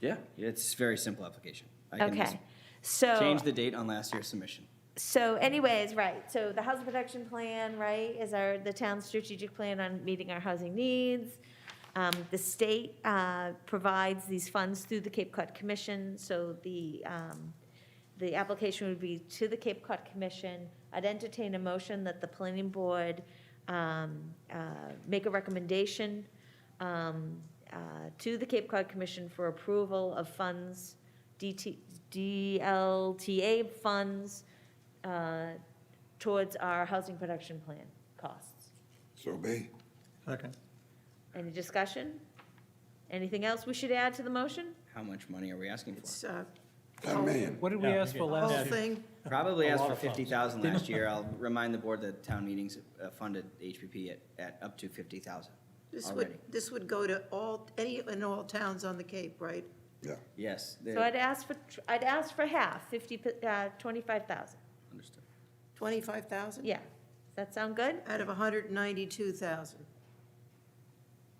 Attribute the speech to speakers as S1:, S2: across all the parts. S1: Yeah, it's very simple application. I can just
S2: Okay, so.
S1: Change the date on last year's submission.
S2: So anyways, right, so the housing protection plan, right, is our, the town's strategic plan on meeting our housing needs. Um, The state uh, provides these funds through the Cape Cod Commission, so the, um, the application would be to the Cape Cod Commission. I'd entertain a motion that the planning board um, uh, make a recommendation um, uh, to the Cape Cod Commission for approval of funds, DT, DLTA funds uh, towards our housing production plan costs.
S3: So be.
S4: Second.
S2: Any discussion? Anything else we should add to the motion?
S1: How much money are we asking for?
S5: It's, uh,
S2: Oh.
S3: I mean,
S4: What did we ask for
S5: whole
S4: last year?
S5: thing,
S1: Probably
S4: A
S1: asked
S4: lot
S1: for
S4: of funds.
S1: fifty thousand last year. I'll remind the board that town meetings uh, funded HPP at, at up to fifty thousand
S5: this
S1: already.
S5: would, this would go to all, any and all towns on the Cape, right?
S3: yeah,
S1: Yes, they-
S2: So I'd ask for, I'd ask for half, 50, uh, 25,000.
S1: understood.
S5: 25,000?
S2: Yeah. Does that sound good?
S5: Out of 192,000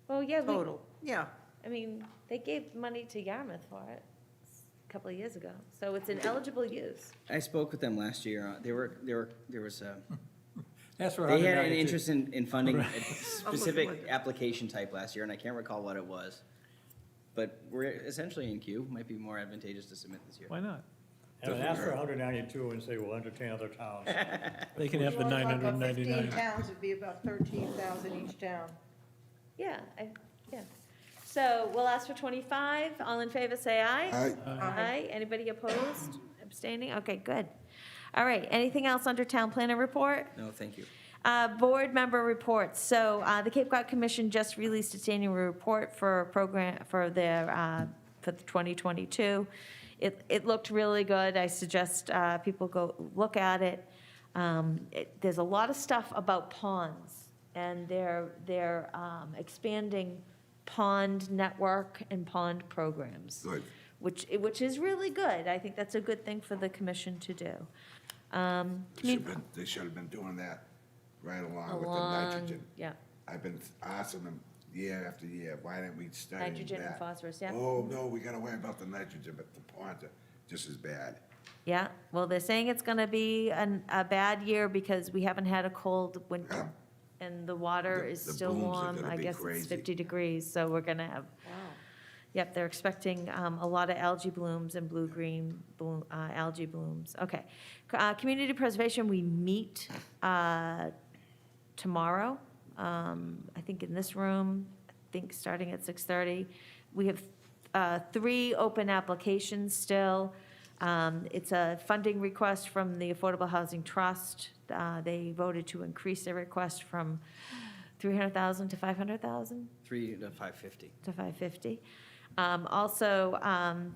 S2: Well, yeah, we-
S5: total, yeah.
S2: I mean, they gave money to Yarmouth for it a couple of years ago, so it's an eligible use.
S1: I spoke with them last year. Uh, They were, there were, there was a,
S4: Ask for
S1: they had an
S4: 192.
S1: interest in, in funding a
S5: with
S1: specific
S5: it.
S1: application type last year, and I can't recall what it was. But we're essentially in queue. Might be more advantageous to submit this year.
S4: Why not?
S6: And ask for 192 and say, we'll entertain other towns.
S4: They can have the
S5: Well, about 15
S4: 999.
S5: towns would be about 13,000 each town.
S2: Yeah, I, yeah. So we'll ask for 25. All in favor, say aye.
S3: I,
S2: Aye. Anybody opposed, abstaining? Okay, good. All right, anything else under town planner report?
S1: No, thank you.
S2: Uh, Board member reports. So uh, the Cape Cod Commission just released its annual report for program, for their, uh, for the 2022. It, it looked really good. I suggest uh, people go look at it. Um, it- There's a lot of stuff about ponds, and they're, they're um, expanding pond network and pond programs
S3: good.
S2: which, which is really good. I think that's a good thing for the commission to do. Um,
S3: They
S2: commu-
S3: should've been- They should have been doing that right along with the
S2: Along,
S3: nitrogen.
S2: yeah,
S3: I've been asking them year after year, why didn't we study that?
S2: Nitrogen and phosphorus, yeah.
S3: Oh, no, we gotta worry about the nitrogen, but the ponds are just as bad.
S2: yeah. Well, they're saying it's going to be an, a bad year because we haven't had a cold winter, and the water
S3: The-
S2: is
S3: the
S2: still
S3: booms are
S2: warm.
S3: gonna
S2: I
S3: be
S2: guess it's
S3: crazy.
S2: 50 degrees, so we're going to have, yep, they're expecting um, a lot of algae blooms and blue-green bloom- uh, algae blooms. Okay. C- uh, Community preservation, we meet uh, tomorrow, um, I think in this room, I think starting at 6:30. We have uh, three open applications still. Um, It's a funding request from the Affordable Housing Trust. Uh, They voted to increase their request from 300,000 to 500,000
S1: Three to five fifty.
S2: to 550. Um, Also, um,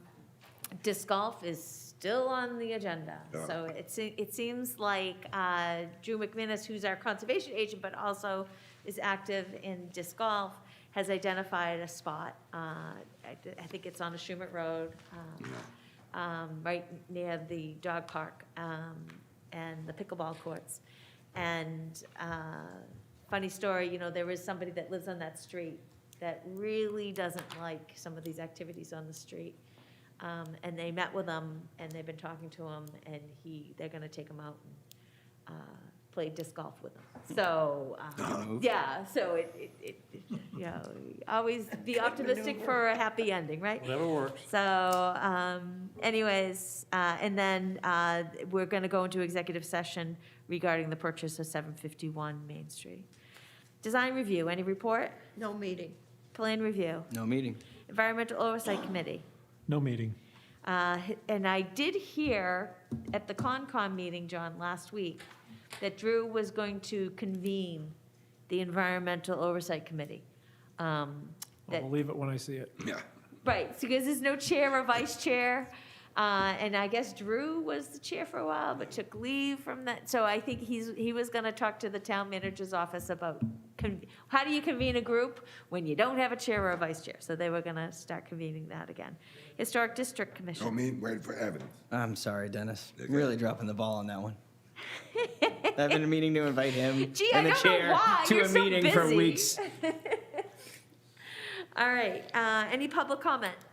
S2: disc golf is still on the agenda. So it, se- it seems like uh, Drew McManus, who's our conservation agent, but also is active in disc golf, has identified a spot. uh, I th- I think it's on the Schumett Road, um, um, right near the dog park um, and the pickleball courts. And uh, funny story, you know, there is somebody that lives on that street that really doesn't like some of these activities on the street. Um, and they met with him, and they've been talking to him, and he, they're gonna take him out and, uh, play disc golf with him. So,
S4: Oh,
S2: uh, yeah, so it, it, it, you know, always be optimistic for a happy ending, right?
S4: Whatever works.
S2: So, um, anyways, uh, and then, uh, we're gonna go into executive session regarding the purchase of seven fifty-one Main Street. Design review, any report?
S5: No meeting.
S2: Plan review,
S1: No meeting.
S2: environmental oversight committee.
S4: No meeting.
S2: Uh, And I did hear at the Concom meeting, John, last week, that Drew was going to convene the Environmental Oversight Committee. Um,
S4: I'll
S2: That
S4: believe it when I see it.
S3: Yeah,
S2: Right, so because there's no chair or vice chair, uh, and I guess Drew was the chair for a while, but took leave from that. So I think he's, he was gonna talk to the town manager's office about, con- how do you convene a group when you don't have a chair or a vice chair? So they were gonna start convening that again. Historic District Commission.
S3: don't mean, waiting for evidence.
S1: I'm sorry, Dennis.
S3: Okay.
S1: Really dropping the ball on that one. I've been meaning to invite him
S2: Gee,
S1: and
S2: I
S1: the
S2: don't know
S1: chair
S2: why.
S1: to
S2: You're
S1: a
S2: so
S1: meeting for
S2: busy.
S1: weeks.
S2: All right, uh, any public comment?